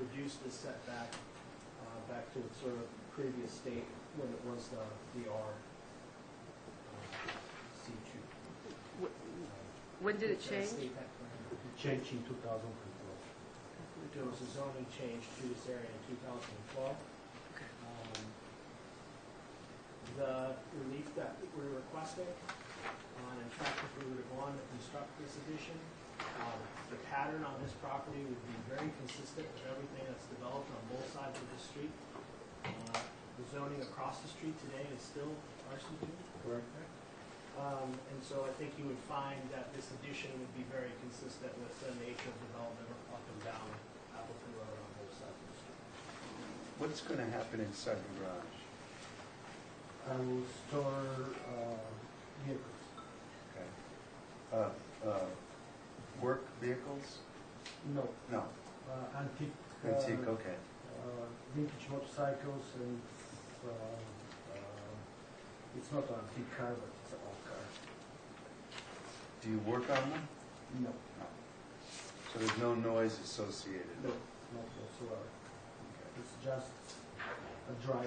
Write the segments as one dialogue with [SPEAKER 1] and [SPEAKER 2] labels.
[SPEAKER 1] reduce the setback uh, back to its sort of previous state when it was the DR C two.
[SPEAKER 2] When did it change?
[SPEAKER 3] Change in 2012.
[SPEAKER 1] There was a zoning change to this area in 2012.
[SPEAKER 2] Okay.
[SPEAKER 1] Um, The relief that we're requesting, um, in fact, if we were to go on to construct this addition, um, the pattern on this property would be very consistent with everything that's developed on both sides of the street. Uh, The zoning across the street today is still RC2.
[SPEAKER 3] Correct.
[SPEAKER 1] Um, And so I think you would find that this addition would be very consistent with the nature of development up and down Appleton Road on both sides of the street.
[SPEAKER 4] What's going to happen inside the garage?
[SPEAKER 3] I will store uh, vehicles.
[SPEAKER 4] Okay. Uh, uh, Work vehicles?
[SPEAKER 3] No,
[SPEAKER 4] No,
[SPEAKER 3] uh, antique. uh,
[SPEAKER 4] antique, okay.
[SPEAKER 3] uh, Vintage motorcycles and uh, uh, it's not an antique car, but it's an old car.
[SPEAKER 4] Do you work on them?
[SPEAKER 3] No,
[SPEAKER 4] No. So there's no noise associated?
[SPEAKER 3] no, not whatsoever.
[SPEAKER 4] Okay.
[SPEAKER 3] It's just a dry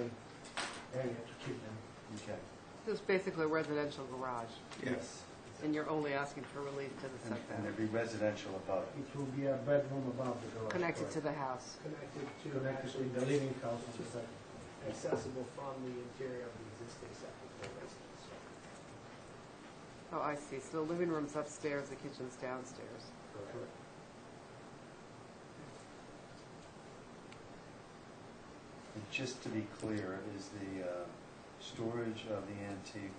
[SPEAKER 3] area to keep them.
[SPEAKER 4] Okay.
[SPEAKER 2] It was basically a residential garage,
[SPEAKER 4] Yes.
[SPEAKER 2] and you're only asking for relief to the
[SPEAKER 4] And and
[SPEAKER 2] setback,
[SPEAKER 4] there'd be residential above it?
[SPEAKER 3] It will be a bedroom above the garage.
[SPEAKER 2] connected to
[SPEAKER 3] correct?
[SPEAKER 2] the house.
[SPEAKER 1] connected to
[SPEAKER 3] Connected to
[SPEAKER 1] actually
[SPEAKER 3] the living house on the second.
[SPEAKER 1] accessible from the interior of the existing second floor residence.
[SPEAKER 2] Oh, I see, so the living room's upstairs, the kitchen's downstairs.
[SPEAKER 3] Correct.
[SPEAKER 4] And Just to be clear, is the uh, storage of the antique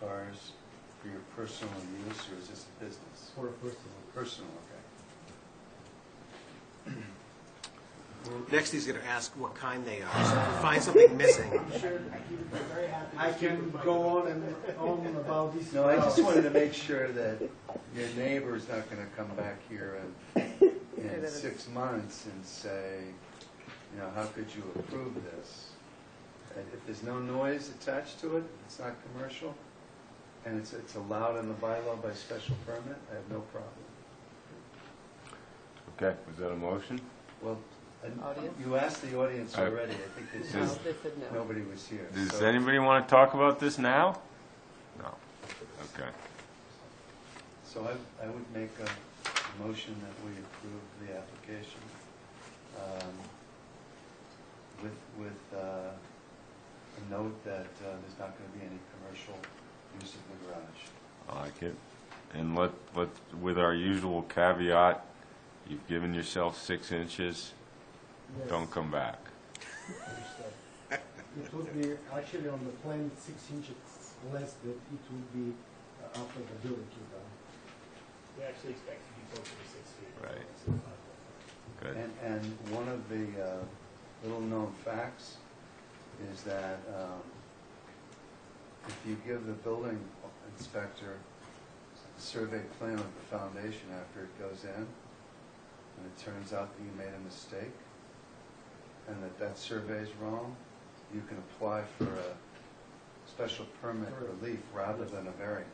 [SPEAKER 4] cars for your personal use, or is this a business?
[SPEAKER 3] For a personal.
[SPEAKER 4] Personal, okay.
[SPEAKER 5] Next, he's going to ask what kind they are. So if you find something missing,
[SPEAKER 1] I'm sure he would be very happy. to
[SPEAKER 3] I
[SPEAKER 1] speak
[SPEAKER 3] can
[SPEAKER 1] with my
[SPEAKER 3] go
[SPEAKER 1] daughter.
[SPEAKER 3] on and on about this.
[SPEAKER 4] No, I just
[SPEAKER 3] house.
[SPEAKER 4] wanted to make sure that your neighbor's not going to come back here in,
[SPEAKER 2] that
[SPEAKER 4] in
[SPEAKER 2] is-
[SPEAKER 4] six months and say, you know, how could you approve this? And if there's no noise attached to it, it's not commercial, and it's, it's allowed in the bylaw by special permit, I have no problem.
[SPEAKER 6] Okay, was that a motion?
[SPEAKER 4] Well, and
[SPEAKER 2] Audience?
[SPEAKER 4] you asked the audience
[SPEAKER 6] I-
[SPEAKER 4] already, I think they
[SPEAKER 2] No,
[SPEAKER 4] said
[SPEAKER 6] Does-
[SPEAKER 2] they said no.
[SPEAKER 4] nobody was here.
[SPEAKER 6] Does
[SPEAKER 4] so-
[SPEAKER 6] anybody want to talk about this now? No. Okay.
[SPEAKER 4] So I, I would make a motion that we approve the application um, with, with uh, a note that uh, there's not going to be any commercial use of the garage.
[SPEAKER 6] I like it. And let, let, with our usual caveat, you've given yourself six inches,
[SPEAKER 3] Yes.
[SPEAKER 6] don't come back.
[SPEAKER 3] It would be actually on the plan six inches less that it would be uh, after the building came down.
[SPEAKER 1] We actually expect to be closer to six feet.
[SPEAKER 6] Right. Good.
[SPEAKER 4] And, and one of the uh, little-known facts is that um, if you give the building inspector a survey plan of the foundation after it goes in, and it turns out that you made a mistake, and that that survey is wrong, you can apply for a special permit relief rather than a variance.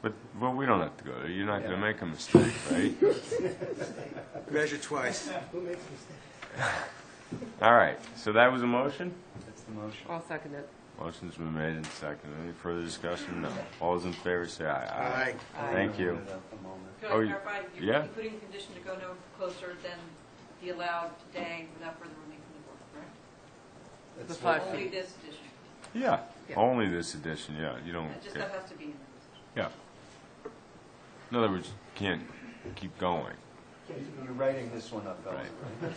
[SPEAKER 6] But, but we don't have to go there. You're not going to
[SPEAKER 4] Yeah.
[SPEAKER 6] make a mistake, right?
[SPEAKER 5] measure twice.
[SPEAKER 1] Who makes mistakes?
[SPEAKER 6] All right, so that was a motion?
[SPEAKER 4] That's the motion.
[SPEAKER 2] I'll second it.
[SPEAKER 6] Motion's been made and seconded. Any further discussion? No. All those in favor say aye.
[SPEAKER 5] Aye.
[SPEAKER 6] Thank you.
[SPEAKER 4] Hold it up a moment.
[SPEAKER 7] Could
[SPEAKER 6] Oh,
[SPEAKER 7] I
[SPEAKER 6] you-
[SPEAKER 7] clarify,
[SPEAKER 6] yeah.
[SPEAKER 7] you're you're putting a condition to go no closer than the allowed today without further relief from the board, correct?
[SPEAKER 4] That's
[SPEAKER 2] The
[SPEAKER 4] what-
[SPEAKER 2] five
[SPEAKER 7] Only
[SPEAKER 2] feet.
[SPEAKER 7] this addition,
[SPEAKER 6] Yeah,
[SPEAKER 2] Yeah.
[SPEAKER 6] only this edition, yeah. You don't,
[SPEAKER 7] That just
[SPEAKER 6] yeah.
[SPEAKER 7] that has to be in there.
[SPEAKER 6] Yeah. In other words, you can't keep going.
[SPEAKER 4] You're writing this one up, Ellen,
[SPEAKER 6] Right.
[SPEAKER 4] right?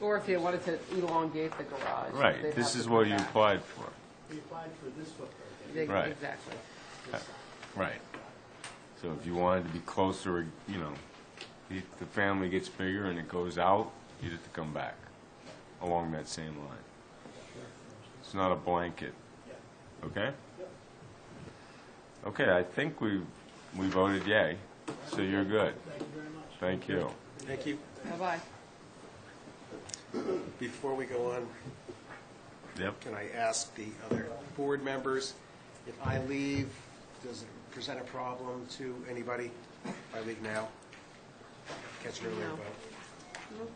[SPEAKER 2] Or if you wanted to elongate the garage.
[SPEAKER 6] Right,
[SPEAKER 2] they'd have
[SPEAKER 6] this
[SPEAKER 2] to
[SPEAKER 6] is
[SPEAKER 2] come
[SPEAKER 6] what you
[SPEAKER 2] back.
[SPEAKER 6] applied for.
[SPEAKER 1] We applied for this footprint.
[SPEAKER 2] They-
[SPEAKER 1] and
[SPEAKER 6] Right.
[SPEAKER 2] Exactly.
[SPEAKER 1] this-
[SPEAKER 6] Right. So if you wanted to be closer, you know, the the family gets bigger and it goes out, you'd have to come back along that same line. It's not a blanket,
[SPEAKER 1] Yeah.
[SPEAKER 6] okay?
[SPEAKER 1] Yep.
[SPEAKER 6] Okay, I think we, we voted yay, so you're good.
[SPEAKER 1] Thank you very much.
[SPEAKER 6] Thank you.
[SPEAKER 5] Thank you.
[SPEAKER 2] Bye-bye.
[SPEAKER 5] Before we go on,
[SPEAKER 6] Yep.
[SPEAKER 5] can I ask the other board members, if I leave, does it present a problem to anybody if I leave now? Catch an earlier
[SPEAKER 2] No.
[SPEAKER 5] vote.